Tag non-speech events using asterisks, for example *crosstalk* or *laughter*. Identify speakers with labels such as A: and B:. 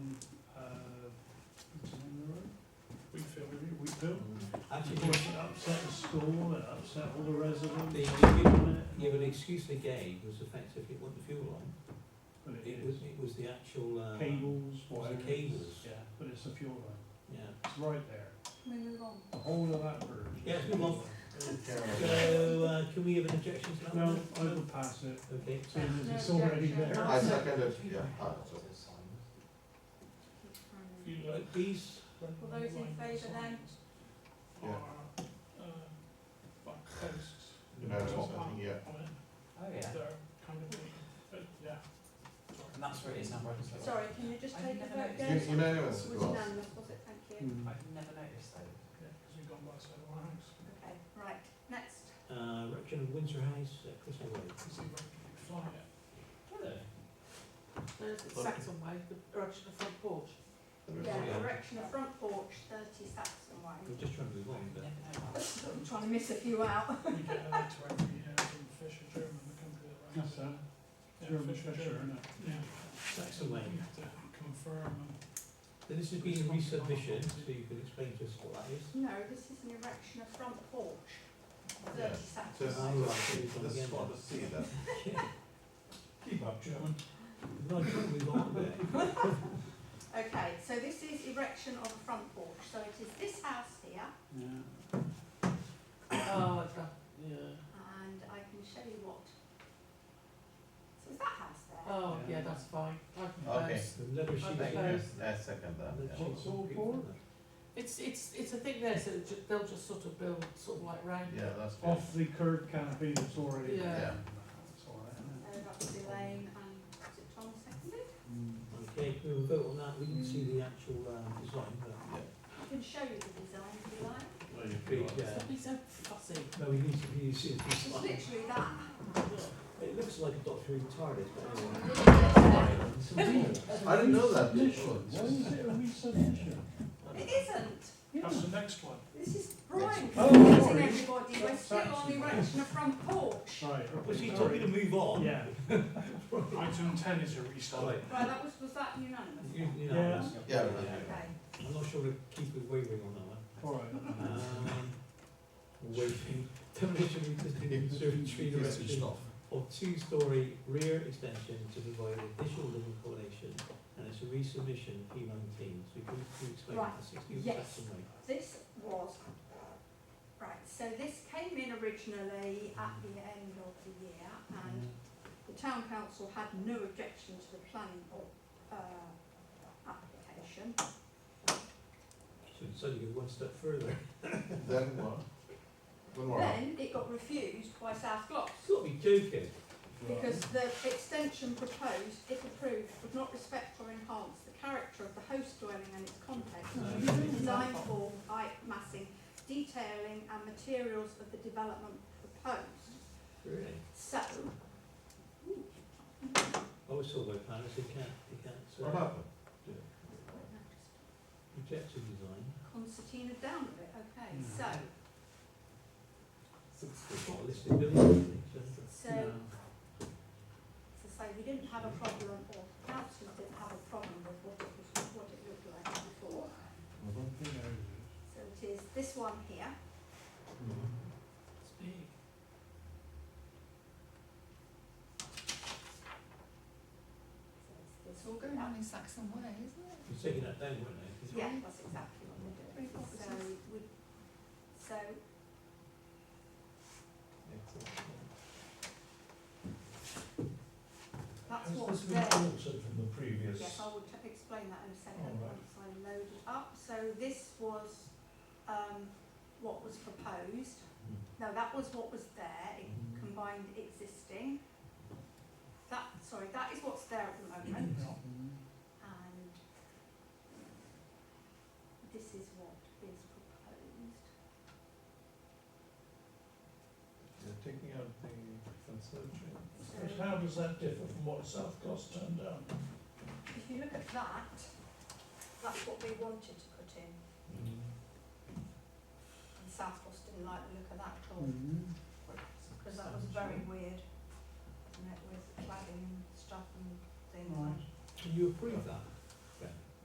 A: True.
B: Actually,
A: Of course, it upset the school, it upset all the residents.
B: The-
A: Wait a minute.
B: yeah, but the excuse they gave was effectively it wasn't the fuel line,
A: But it
B: it was,
A: is.
B: it was the actual, uh.
A: Cables, wires.
B: cables.
A: Yeah, but it's the fuel line.
B: Yeah.
A: It's right there.
C: Move on.
A: The whole of that bird.
B: Yeah, it's been off. So, uh, can we have an objection to that
A: No,
B: one?
A: I would pass it,
B: Okay,
A: seeing as it's already there.
C: No
D: I second it, yeah, Ah, I,
B: Uh, these,
C: All those in favour then?
A: uh,
D: yeah, you know, it's not, yeah.
E: Oh, yeah.
A: uh,
E: And that's where it is now, right? so-
C: Sorry, can you just take a vote
D: You,
C: again?
D: you know, it's,
C: Was
D: well,
C: unanimous, was it? Thank you.
A: Mm.
E: I've never noticed though.
C: Okay, right, next.
B: uh, erection of Windsor House, uh, Crystal Road.
C: Yeah, direction of front porch, thirty Saxon Way.
B: We're just trying to move on, but.
C: I'm trying to miss a few out.
A: That's that. German Fisher, isn't it?
B: Saxon Lane. So this has been a resubmission, so you can explain to us what that is.
C: No, this is an erection of front porch,
D: Yeah.
C: thirty
D: so it's,
C: Saxon Way.
D: it's, this is what the C then.
A: Keep up, German.
B: No, I'm trying to move on a bit.
C: Okay, so this is erection of a front porch, so it is this house here,
A: Yeah.
E: Oh, it's got, yeah.
C: and I can show you what. So is that house there?
E: Oh, yeah, that's fine. I can
D: Okay.
E: close.
B: The leather sheets.
E: Okay.
B: there,
D: I second
B: and the
D: that, yeah.
B: sheets on the
A: Four.
E: It's, it's, it's a thing there, so it ju- they'll just sort of build sort of like round.
D: Yeah, that's good.
A: Off the curb canopy that's already there.
E: Yeah.
A: That's all right, isn't
C: Uh, that's Elaine and, is it Tom seconded?
A: it?
B: Okay, we will vote on that, we didn't see the actual, um, design, but,
C: I can show you the design if you like.
D: Well, you
B: big,
D: can-
B: uh,
E: Don't be so fussy.
B: no, we need to really see the
C: It's
B: design.
C: literally that.
B: It looks like a Doctor Who TARDIS, but anyway.
D: I didn't know that.
A: Why is it a resubmission?
C: It isn't.
A: Yeah.
F: That's the next one.
C: This is Brian
A: Oh,
C: confusing
A: sorry.
C: everybody. We're
A: That's
C: still on
A: actually-
C: erection of front porch. Right,
A: Right.
B: Was he told me to move
F: *laughs*
B: on?
A: Yeah.
F: Item ten is a restart.
B: Right.
C: that was, was that unanimous?
B: You, you know,
D: Yeah,
C: Okay.
B: I'm not sure if Keith was wavering on that one.
A: All right.
B: Um, Waiting, demolition of existing conservatory erection of two-storey rear extension to provide additional living accommodation, and it's a resubmission P nineteen, so you can, you explain
C: Right.
B: the sixteen
C: Yes.
B: Saxon Way.
C: This was, right, so this came in originally at the end of the year and the town council had no objection to the planning board, uh, application.
B: So it's only one step further.
D: *laughs* Then what? Then what?
C: Then it got refused by South Gloss.
B: You've got to be joking.
C: Because the extension proposed, if approved, would not respect or enhance the character of the host dwelling and its context.
B: No.
C: Design form, height, massing, detailing and materials of the development proposed.
B: Really?
C: So,
B: I was told by planners, they can't, they can't,
D: What
B: uh,
D: happened?
B: objective design.
C: concertina down a bit, okay, so,
B: It's not a listed building, I think, so.
C: so, to say we didn't have a problem or councillors didn't have a problem with what it was, what it looked like before.
D: Mhm.
C: So it is this one here.
D: Mm-hmm.
E: It's big.
C: So it's this all going up.
B: You're taking that down, weren't you?
C: Yeah, that's exactly what we're doing. So we, so that's what's there.
A: from the previous?
C: Yes, I will t- explain that in a second once I load it up. So this was, um, what was proposed. No, that was what was there, it
A: Hmm.
F: Mm-hmm.
C: combined existing. That, sorry, that is what's there at the moment.
A: Oh.
C: And this is what is proposed.
D: You're taking out the conservatory.
C: So
F: How does that differ from what South Gloss turned down?
C: if you look at that, that's what we wanted to put in.
D: Mm-hmm.
C: And South Gloss didn't like the look of that at all.
A: Mm.
C: Mm-hmm. Because that was very weird, and it was cladding and stuff and things.
A: Right.
C: and-
B: Can you approve that?